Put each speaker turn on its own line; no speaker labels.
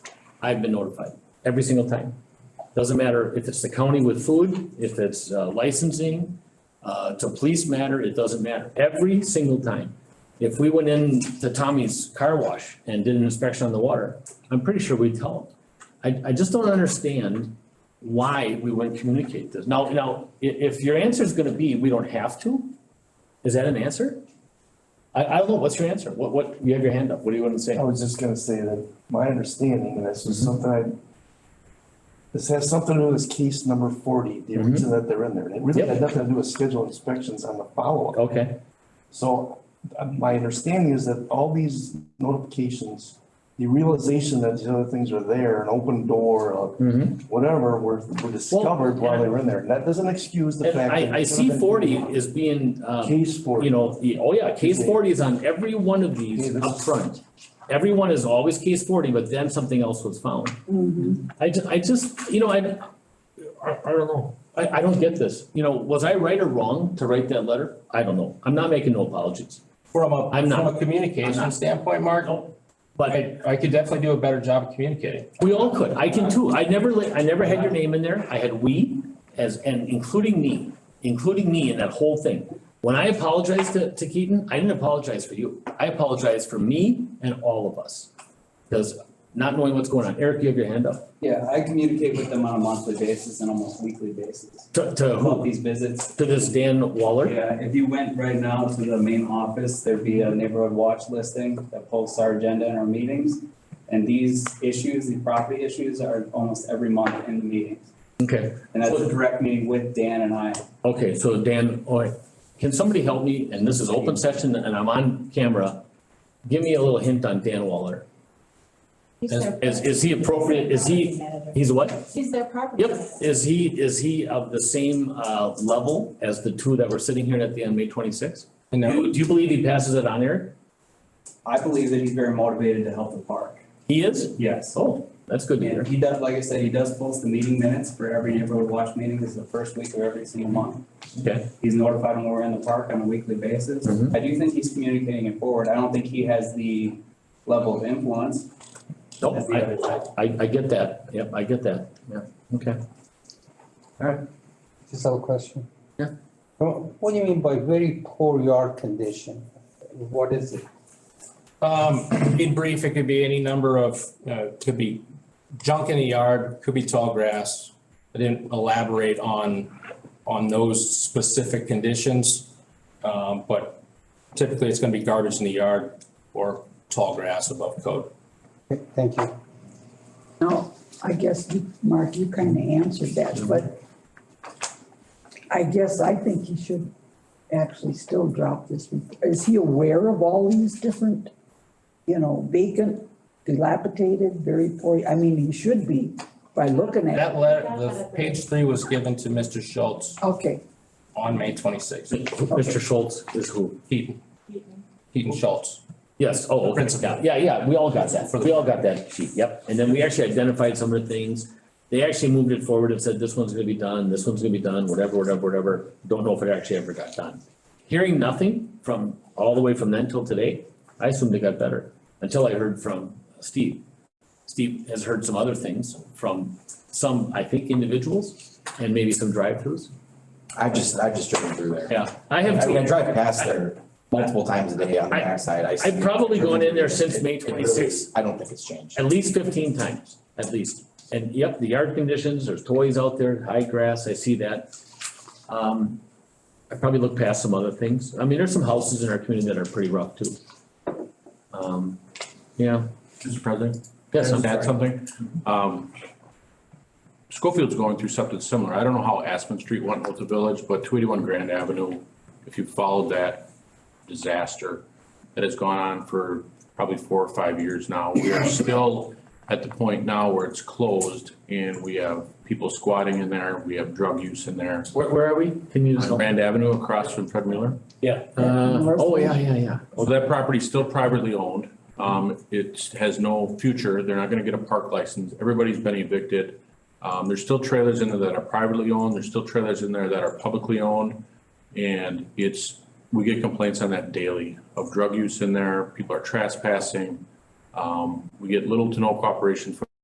I've been notified every single time. Doesn't matter if it's the county with food, if it's uh, licensing, uh, it's a police matter, it doesn't matter. Every single time. If we went in to Tommy's car wash and did an inspection on the water, I'm pretty sure we'd tell them. I, I just don't understand why we wouldn't communicate this. Now, now, i- if your answer is gonna be, we don't have to, is that an answer? I, I don't know, what's your answer? What, what, you have your hand up, what do you want to say?
I was just gonna say that my understanding, and this
Mm-hmm.
is something I, this has something to do with case number forty, the
Mhm.
reason that they're in there. It really
Yep.
had nothing to do with scheduled inspections on the follow-up.
Okay,
So uh, my understanding is that all these notifications, the realization that these other things are there, an open door, uh,
hmm
whatever, were, were discovered while they were in there. And that doesn't excuse the
And
fact that.
I, I
it
see
could've been
forty is being, um,
Case forty.
you know, the, oh yeah, case forty is on every one of these
Okay, this
up
is-
front. Everyone is always case forty, but then something else was found. I ju- I just, you know, I, I, I don't know. I, I don't get this. You know, was I right or wrong to write that letter? I don't know. I'm not making no apologies.
From a,
I'm
from
not.
a communication standpoint, Mark,
But
I, I could definitely do a better job of communicating.
we all could. I can too. I never, li- I never had your name in there. I had we as, and including me, including me in that whole thing. When I apologized to, to Keaton, I didn't apologize for you. I apologized for me and all of us. Because not knowing what's going on. Eric, you have your hand up.
Yeah, I communicate with them on a monthly basis and almost weekly basis
To, to
about
who?
these visits.
To this Dan Waller?
Yeah, if you went right now to the main office, there'd be a neighborhood watch listing that posts our agenda and our meetings. And these issues, the property issues are almost every month in the meetings.
Okay.
And that's a direct meeting with Dan and I.
Okay, so Dan, all right, can somebody help me, and this is open session and I'm on camera, give me a little hint on Dan Waller. Is, is- is he appropriate, is he, he's what?
He's their property.
Yep, is he, is he of the same, uh, level as the two that were sitting here at the end, May twenty-sixth?
And
Do
then,
you- do you believe he passes it on, Eric?
I believe that he's very motivated to help the park.
He is?
Yes.
Oh, that's good to hear.
And he does, like I said, he does post the meeting minutes for every neighborhood watch meeting. This is the first week of every single month.
Okay,
He's notified when we're in the park on a weekly basis.
Mhm.
I do think he's communicating it forward. I don't think he has the level of influence
no,
as the
Oh, I,
other side.
I, I get that, yep, I get that, yeah, okay.
Just have a question.
Yeah.
Wha- What do you mean by very poor yard condition? What is it?
um, in brief, it could be any number of, uh, could be junk in the yard, could be tall grass. I didn't elaborate on, on those specific conditions. Um, but typically it's gonna be garbage in the yard or tall grass above code.
Th- Thank you.
No, I guess, you- Mark, you kind of answered that, but I guess I think he should actually still drop this. rep- Is he aware of all these different, you know, vacant, dilapidated, very poor, I mean, he should be by looking at. it.
That letter, the page three was given to Mr. Schultz
Okay,
on May twenty-sixth,
Mr. Schultz is who?
Keaton, Keaton Schultz.
Yes, oh, okay,
Principal.
yeah, yeah, yeah, we all got that, we all got that sheet, yep, and then we actually identified some of the things. They actually moved it forward and said, this one's gonna be done, this one's gonna be done, whatever, whatever, whatever, don't know if it actually ever got done. Hearing nothing from, all the way from then till today, I assumed it got better, until I heard from Steve. Steve has heard some other things from some, I think, individuals, and maybe some drive-throughs,
I just, I've just driven through there.
yeah, I have
I
too.
mean, I drive past there multiple times a day on the
I-
backside. I see
I've probably
it.
gone in there since May
It really-
26.
I don't think it's changed.
At least fifteen times, at least. And yep, the yard conditions, there's toys out there, high grass, I see that. Um, I probably looked past some other things. I mean, there's some houses in our community that are pretty rough too. Um, yeah,
Mr. President?
yes, I'm
Can I add
sorry.
something? Um, Schofield's going through something similar. I don't know how Aspen Street went with the village, but two eighty-one Grand Avenue, if you followed that disaster that has gone on for probably four or five years now, we are still at the point now where it's closed and we have people squatting in there, we have drug use in there.
Where, where are we? Can you just
On
help?
Grand Avenue across from Fred Mueller.
Yeah. Uh, oh, yeah, yeah, yeah.
Well, that property's still privately owned. Um, it has no future. They're not gonna get a park license. Everybody's been evicted. Um, there's still trailers in there that are privately owned. There's still trailers in there that are publicly owned. And it's, we get complaints on that daily of drug use in there. People are trespassing. Um, we get little to no cooperation from